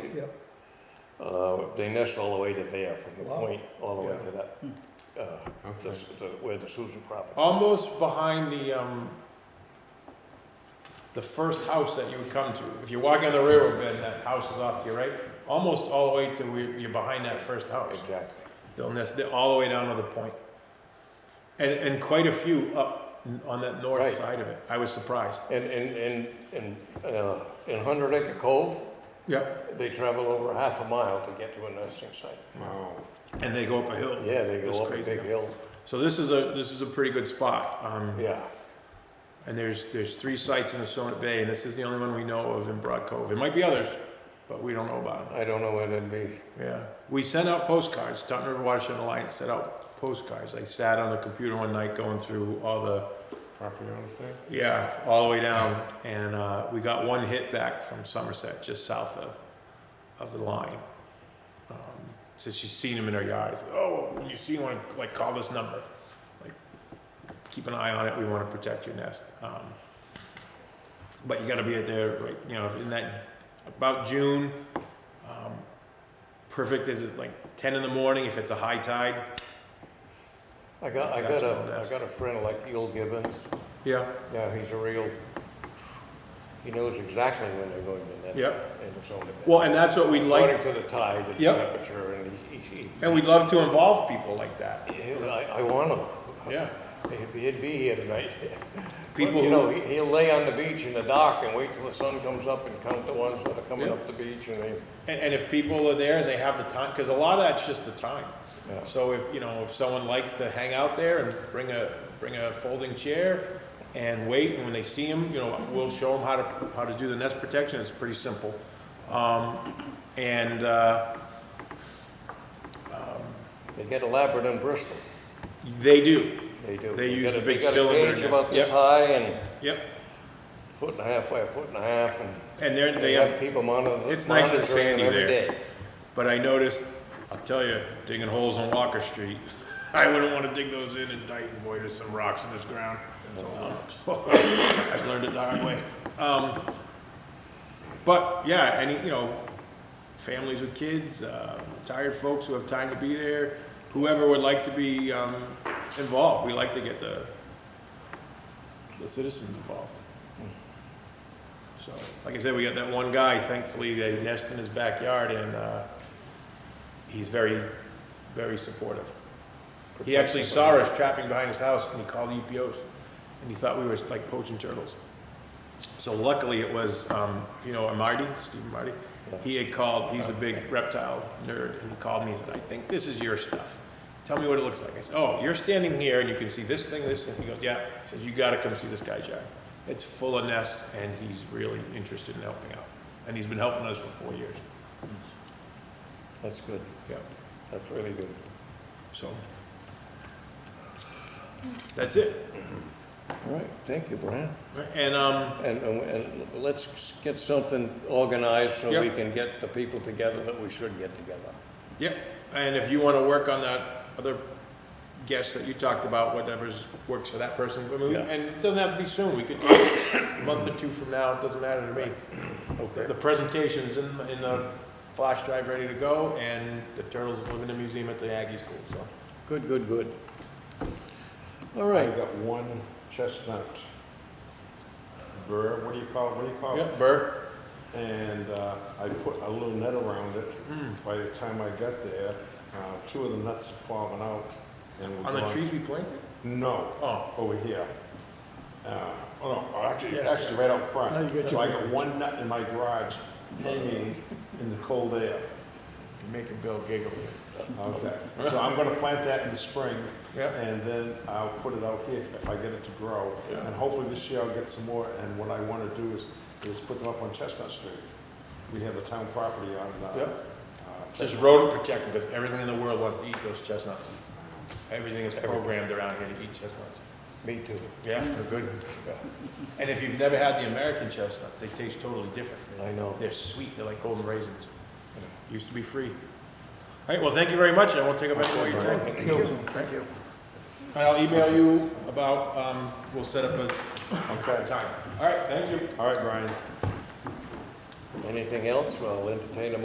Street. Yep. Uh, they nest all the way to there, from the Wow. point all the way Yeah. to that, uh, the Okay. s- the- where the Sousa property. Almost behind the, um, the first house that you would come to. If you're walking on the railroad bed, that house is off to your right, almost all the way to where you're behind that first house. Exactly. They'll nest, they're all the way down to the point. And, and quite a few up n- on that north Right. side of it. I was surprised. And, and, and, and, uh, in Hundred Acre Cove, Yep. they travel over half a mile to get to a nesting site. Wow. And they go up a hill. Yeah, they Hmm. That's go up a crazy. big hill, So this is a, this is a pretty good spot. Um, yeah. And there's, there's three sites in Assonet Bay, and this is the only one we know of in Broad Cove. There might be others, but we don't know about them. I don't know where they'd be. Yeah. We sent out postcards. Taunton River Watershed Alliance sent out postcards. I sat on the computer one night going through all the, Property owners thing? yeah, all the way down, and, uh, we got one hit back from Somerset, just south of, of the line. Um, Said she's seen him in her yard. It's like, Oh, when you see one, like, call this number. Like, keep an eye on it. We wanna protect your nest. Um, but you gotta be at there, right, you know, in that, about June, um, perfect is it like ten in the morning if it's a high tide? I got, I That's got my a, I nest. got a friend like Yul Gibbons, Yeah. yeah, he's a real, he knows exactly when they're going to nest. Yep. And it's only. Well, and that's what we'd like, According to the tide and Yep. temperature and he, he, and we'd love to involve people like that. he- I, I want him. Yeah. If He'd be here tonight. People You who- know, he- he'll lay on the beach in the dock and wait till the sun comes up and count the ones that are coming Yeah. up the beach and they, And, and if people are there and they have the time, because a lot of that's just the time. Yeah. So if, you know, if someone likes to hang out there and bring a, bring a folding chair and wait, and when they see them, you know, we'll show them how to, how to do the nest protection, it's pretty simple. Um, and, uh, they get elaborate in Bristol. they do, They do. They use got the big they got cylinder a cage nest. about this Yep. high and yep, foot and a half by a foot and a half and and they're, they they have have people monitor, it's nice and monitoring them sandy every there. day. But I noticed, I'll tell you, digging holes on Walker Street, I wouldn't want to dig those in in Dayton, boy, there's some rocks in this ground. Um, I've learned it the hard way. Um, but yeah, and you know, families with kids, uh, retired folks who have time to be there, whoever would like to be um, involved, we like to get the the citizens involved. So, like I said, we got that one guy, thankfully, they nest in his backyard and, uh, he's very, very supportive. He actually saw us trapping behind his house and he called EPOs and he thought we were like poaching turtles. So luckily it was, um, you know, Marty, Stephen Marty, he had called, he's a big reptile nerd, and he called me and said, I think this is your stuff. Tell me what it looks like. I said, oh, you're standing here and you can see this thing, this thing. He goes, yeah. He says, you gotta come see this guy's yard. It's full of nests and he's really interested in helping out. And he's been helping us for four years. That's good. Yeah. That's really good. So. That's it. All right, thank you, Brian. And, um, And, and- and let's get something organized so Yep. we can get the people together that we should get together. Yep, and if you want to work on that other guest that you talked about, whatever's, works for that person, I mean, we- Yeah. and it doesn't have to be soon, we could do it a month or two from now, it doesn't matter to me. Okay. The presentation's in, in the flash drive ready to go, and the turtles live in the museum at the Aggie School, so. Good, good, good. All I right, got one chestnut burr, what do you call, it? what do you call it? Yep, Burr, And uh, I put a little net around it. By the time I got there, uh, two of the nuts had fallen out and were on the gone. trees we planted? No, Oh, over here. Uh, Oh, no, actually, Yeah. actually right out front. Now you got So your I got one nut in my garage hanging in the cold air. you're making Bill giggle. Okay, so I'm gonna plant that in the spring. Yep. And then I'll put it out here if I get it to grow. Yeah. And hopefully this year I'll get some more, and what I wanna do is, is put them up on Chestnut Street. We have the town property on, uh, Yep. uh, Just Chestnut. rodent protected, because everything in the world wants to eat those chestnuts. Everything is programmed around here to eat chestnuts. Mm. me too. Yeah, they're good. And if you've never had the American chestnuts, they taste totally different. I know. They're sweet, they're like golden raisins. Used to be free. All right, well, thank you very much, I won't take up any more of your time. Thank you. Thank you. And I'll email you about, um, we'll set up a Okay, time. All right, thank you. all right, Brian. Anything else? Well, I'll entertain a